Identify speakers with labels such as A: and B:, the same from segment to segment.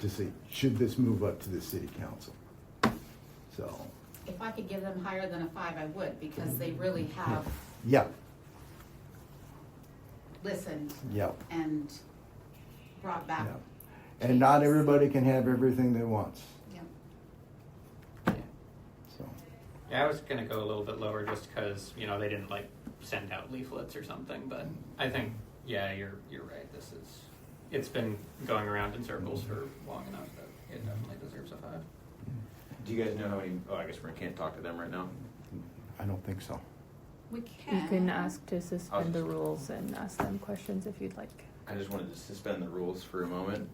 A: to see, should this move up to the city council? So,
B: If I could give them higher than a five, I would, because they really have
A: yep,
B: listened
A: yep,
B: and brought back.
A: yep. And not everybody can have everything they want,
B: Yeah.
A: so.
C: Yeah, I was gonna go a little bit lower just because you know they didn't like send out leaflets or something, but I think yeah, you're you're right. This is it's been going around in circles for long enough that it definitely deserves a five.
D: Do you guys know how many? Oh, I guess we can't talk to them right now.
A: I don't think so.
B: We
E: You
B: can.
E: can ask to suspend the rules and ask them questions if you'd like.
D: I just wanted to suspend the rules for a moment.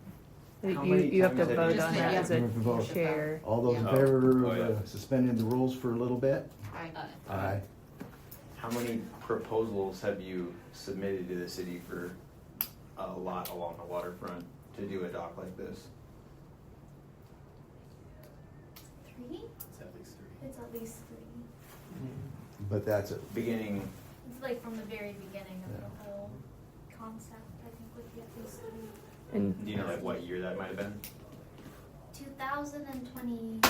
D: How
E: You,
D: many
E: you have
D: times have
E: to vote
D: you
E: on
B: said
E: that
B: yeah?
E: as
A: You have to
E: a
A: vote.
E: chair.
A: All those in
D: Yeah.
A: favor
D: Oh,
A: of
D: yeah.
A: uh, suspending the rules for a little bit?
B: I-
A: Aye.
D: How many proposals have you submitted to the city for a lot along the waterfront to do a dock like this?
F: Three? It's at least three.
A: But that's it.
D: Beginning,
F: It's like from the very beginning of
A: Yeah.
F: the whole concept, I think would be at least three.
E: And
D: do you know like what year that might have been?
F: Two thousand and twenty-one,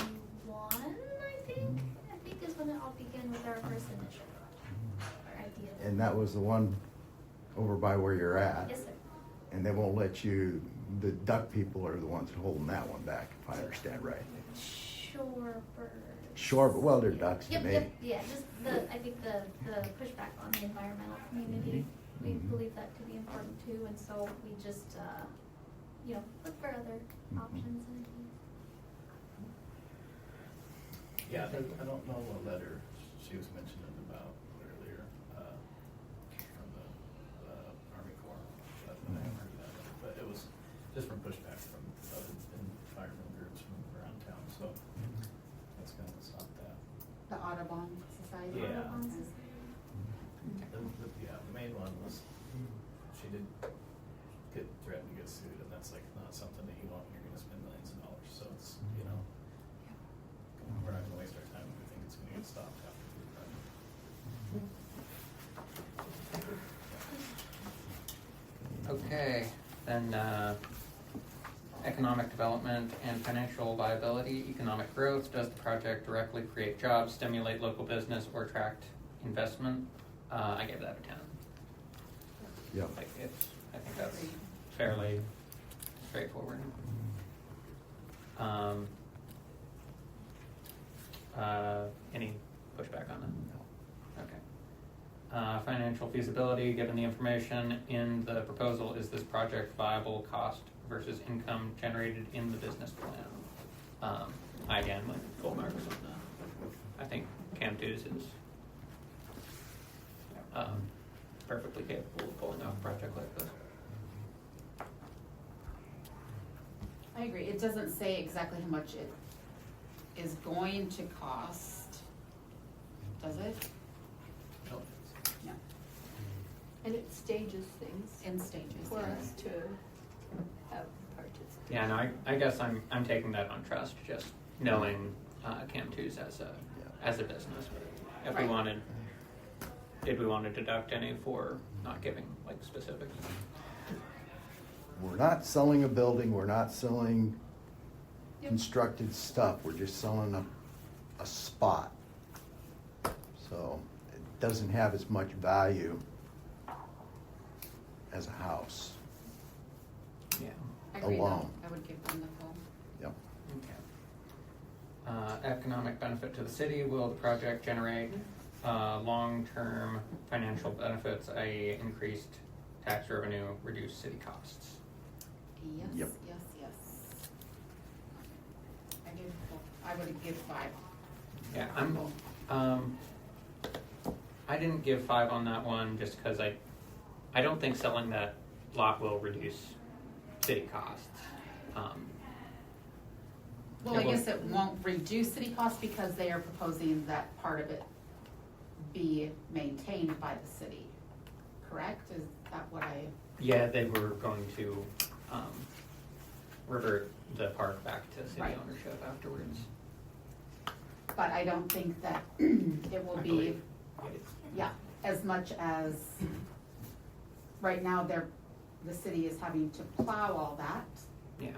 F: I think,
A: Mm-hmm.
F: I think is when it all began with our first initiative or idea.
A: And that was the one over by where you're at.
F: Yes, sir.
A: And they won't let you, the duck people are the ones holding that one back, if I understand right.
F: Shorebird.
A: Shore, well, they're ducks to
F: Yep,
A: me.
F: yep, yeah, just the, I think the, the pushback on the environmental community, we
A: Mhm.
F: believe that to be important too, and so we just, uh, you know, look for other
A: Mhm.
F: options and ideas.
G: Yeah, there- I don't know what letter she was mentioning about earlier, uh, from the, uh, Army Corps. but I haven't heard that letter, But it was just from pushback from other environmental groups from around town, so that's gonna stop that.
B: The Audubon Society.
G: Yeah.
F: Audubon Society.
G: The, the, yeah, the main one was, she did get threatened to get sued, and that's like not something that you want, when you're gonna spend millions of dollars, so it's, you know, we're not gonna waste our time if we think it's gonna get stopped after we've done it.
C: Okay, then uh, economic development and financial viability, economic growth. Does the project directly create jobs, stimulate local business, or attract investment? Uh, I gave that a ten.
A: Yep.
C: Like it's, I think that's fairly straightforward. Um, uh, any pushback on that? No. Okay. Uh, financial feasibility, given the information in the proposal, is this project viable cost versus income generated in the business plan? Um, I again, like full marks on that. I think Cam Two is um, perfectly capable of pulling off a project like this.
B: I agree. It doesn't say exactly how much it is going to cost, does it? No.
H: And it stages things
B: In stages.
H: for
B: yeah.
H: us to have participants.
C: Yeah, no, I, I guess I'm, I'm taking that on trust, just knowing uh, Cam Two's as a, as a business. If we
B: Right.
C: wanted, did we want to deduct any for not giving like specifics?
A: We're not selling a building, we're not selling constructed stuff, we're just selling a, a spot. So it doesn't have as much value as a house.
C: Yeah.
B: I agree, though.
A: Alone.
B: I would give them the full.
A: Yep.
C: Okay. Uh, economic benefit to the city, will the project generate, uh, long-term financial benefits, i.e. increased tax revenue, reduced city costs?
B: Yes,
A: Yep.
B: yes, yes. I give, full- I would give five.
C: Yeah, I'm, um, I didn't give five on that one just because I, I don't think selling that lot will reduce city costs. Um,
B: Well,
C: Yeah,
B: I
C: well-
B: guess it won't reduce city costs because they are proposing that part of it be maintained by the city, correct? Is that what I,
C: yeah, they were going to, um, revert the park back to city
B: Right.
C: ownership afterwards.
B: but I don't think that it will
C: I
B: be,
C: believe.
B: yeah, as much as, right now, they're, the city is having to plow all that.
C: Yeah.